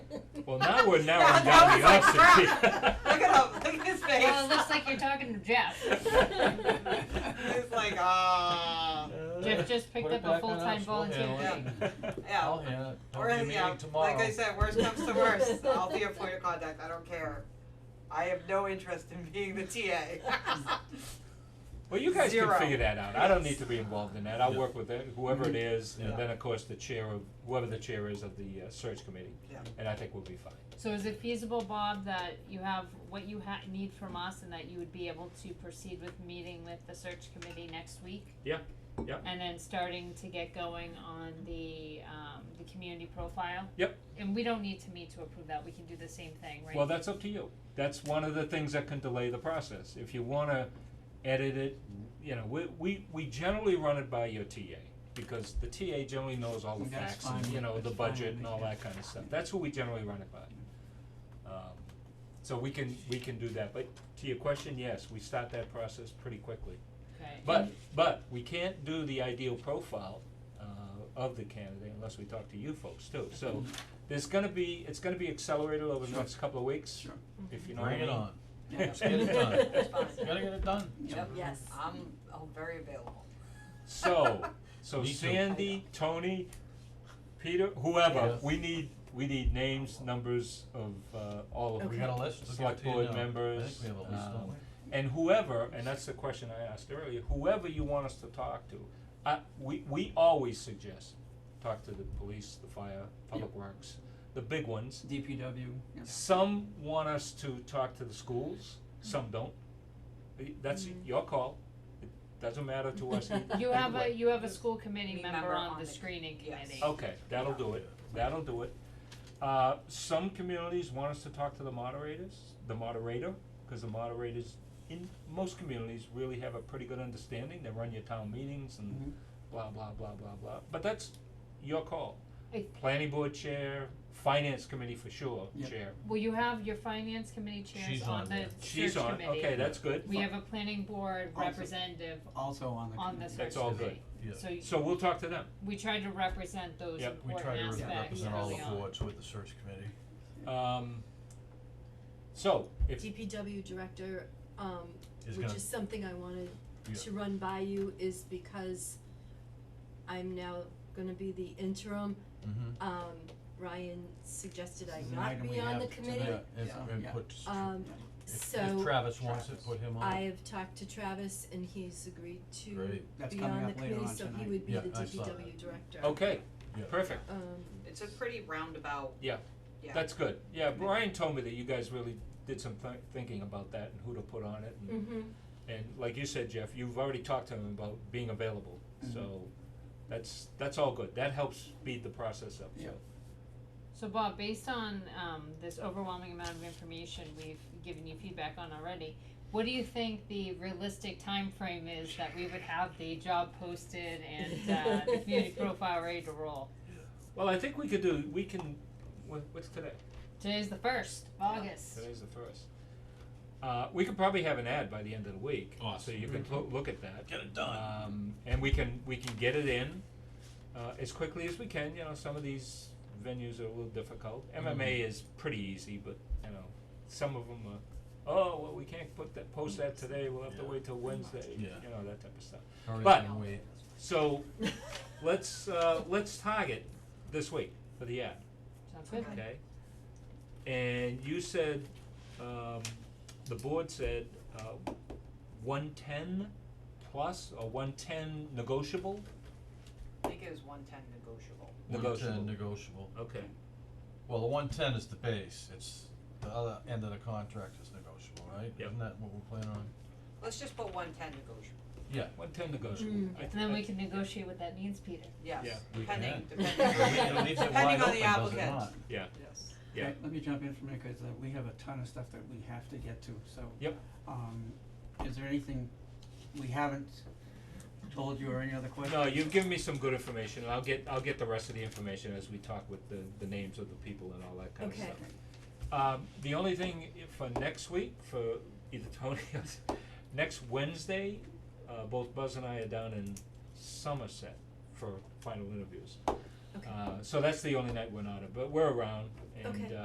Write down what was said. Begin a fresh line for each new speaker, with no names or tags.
Well, now we're
That-
narrowing
that
down the
was like
option.
Look at him. Look at his face.
Well, it looks like you're talking to Jeff.
He's like, ah.
Jeff just picked
Put
up
it
a
back on
full-time
us, we'll
volunteer
handle
gig.
it.
Yeah.
I'll handle it. Don't
Or,
give me
yeah,
any
like I
tomorrow.
said, worst comes to worst, I'll be a point of contact, I don't care. I have no interest in being the TA.
Well, you guys
Zero.
can figure that out. I don't need to be involved in that. I'll
Yeah.
work with it, whoever it is,
Yeah.
and then of course the chair of, whoever the chair is of the uh, search committee.
Yeah.
And I think we'll be fine.
So is it feasible, Bob, that you have what you ha- need from us and that you would be able to proceed with meeting with the search committee next week?
Yeah, yeah.
And then starting to get going on the, um, the community profile?
Yep.
And we don't need to meet to approve that, we can do the same thing, right?
Well, that's up to you. That's one of the things that can delay the process. If you wanna edit it, you know, we, we, we generally run it by your TA, because the TA generally knows all the
That's
facts and,
fine.
you know, the
That's fine
budget
with
and
me,
all
yeah.
that kinda stuff. That's who we generally run it by. Um, so we can, we can do that, but to your question, yes, we start that process pretty quickly.
Okay.
But, but we can't do the ideal profile, uh, of the candidate unless we talk to you folks too, so
Mm-hmm.
there's gonna be, it's gonna be accelerated over the
Sure.
next couple of weeks.
Sure.
If you know
Bring it
what I mean.
on.
Yeah,
Let's get it done.
Fine.
You Gotta get it done.
Yep,
Yes.
I'm, oh, very available.
So, so
Me too.
Sandy, Tony, Peter, whoever,
Yeah.
we need, we need names, numbers of, uh, all of
We
them.
got a list, we'll give it
Select
to you
board
now.
members,
I think we have a list,
um,
don't we?
And whoever, and that's the question I asked earlier, whoever you want us to talk to, I, we, we always suggest, talk to the police, the fire, public works, the big ones.
DPW. yeah.
Some want us to talk to the schools, some don't. Y- That's your call, it doesn't matter to us either.
Mm-hmm. You
either
have a,
way.
you have a school committee
Me
member on the screening
yes.
committee.
Okay, that'll do it, that'll do it. Uh, some communities want us to talk to the moderators, the moderator, cause the moderators in most communities really have a pretty good understanding, they run your town meetings
Mm-hmm.
and blah, blah, blah, blah, blah, but that's your call.
I-
Planning board chair, finance committee for sure,
Yeah.
chair.
Well, you have your finance committee chairs
She's
on
on
the
there.
She's
search
on,
committee.
okay, that's good.
We have a planning board
Also-
representative
Also on the.
on the
committee.
search
That's all good.
committee.
Yeah.
So you-
So we'll talk to them.
we tried to represent those
Yep,
We try to
important
re-
aspects
represent all
early
the
on.
boards with the search committee.
Um, so, if,
DPW director, um,
Is
which
gonna-
is something I wanted
Yeah.
to run by you, is because I'm now gonna be the interim.
Mhm.
Um, Ryan suggested I
This is an
not
item we
be on the
have
committee,
Yeah, if,
Yeah.
and
Yeah.
put, if-
um,
if
so
Travis wants it,
Travis.
put him on.
I have talked to Travis and he's agreed to
Great.
That's
be
coming
on the
up later
committee,
on
so he
tonight.
would be
Yeah,
the
I saw
DPW
that.
director.
okay,
Yeah.
perfect,
Um,
It's a pretty roundabout,
yeah,
yeah.
that's good. Yeah, Brian told me that you guys really did some thi- thinking about that and who to put on it. and-
Mm-hmm.
mhm.
And like you said, Jeff, you've already talked to him about being available, so that's, that's all good. That helps speed the process up, so.
Yeah.
So Bob, based on um this overwhelming amount of information we've given you feedback on already, what do you think the realistic time frame is that we would have the job posted and uh the community profile ready to roll?
Well, I think we could do, we can, what, what's today?
Today's the first, of August.
Today's the first. Uh, we could probably have an ad by the end of the week, so
Awesome.
you can lo- look at that.
Get it done.
Um, and we can, we can get it in, uh, as quickly as we can, you know, some of these venues are a little difficult.
Mm-hmm.
MMA is pretty easy, but, you know, some of them are, oh, well, we can't put that, post that today, we'll have to
Yeah.
wait till Wednesday, you
Yeah.
know, that type of stuff.
Hurry
but-
and wait.
So, let's, uh, let's target this week for the ad,
Sounds good?
okay? And you said, um, the board said, uh, one ten plus or one ten negotiable?
I think it was one ten negotiable.
Negotiable.
One ten negotiable.
Okay,
Well, the one ten is the base, it's, the other end of the contract is negotiable, right?
Yep.
Isn't that what we're planning on?
Let's just put one ten negotiable,
Yeah.
one ten negotiable.
Mm.
I th-
And then
I-
we can negotiate what that means, Peter.
Yeah.
yes,
We
depending,
can.
depending,
It leaves it wide
depending on the applicant.
open, does it not?
Yeah,
Yes.
yeah.
Let- Let me jump in for a minute, cause uh, we have a ton of stuff that we have to get to, so.
Yep.
Um, is there anything we haven't told you or any other questions?
No, you've given me some good information, and I'll get, I'll get the rest of the information as we talk with the, the names of the people and all that kind of
Okay.
stuff. Um, the only thing i- for next week, for either Tony or, s- next Wednesday, uh, both Buzz and I are down in Somerset for final interviews.
Okay.
Uh, so that's the only night we're not, at, but we're around, and,
Okay.
uh,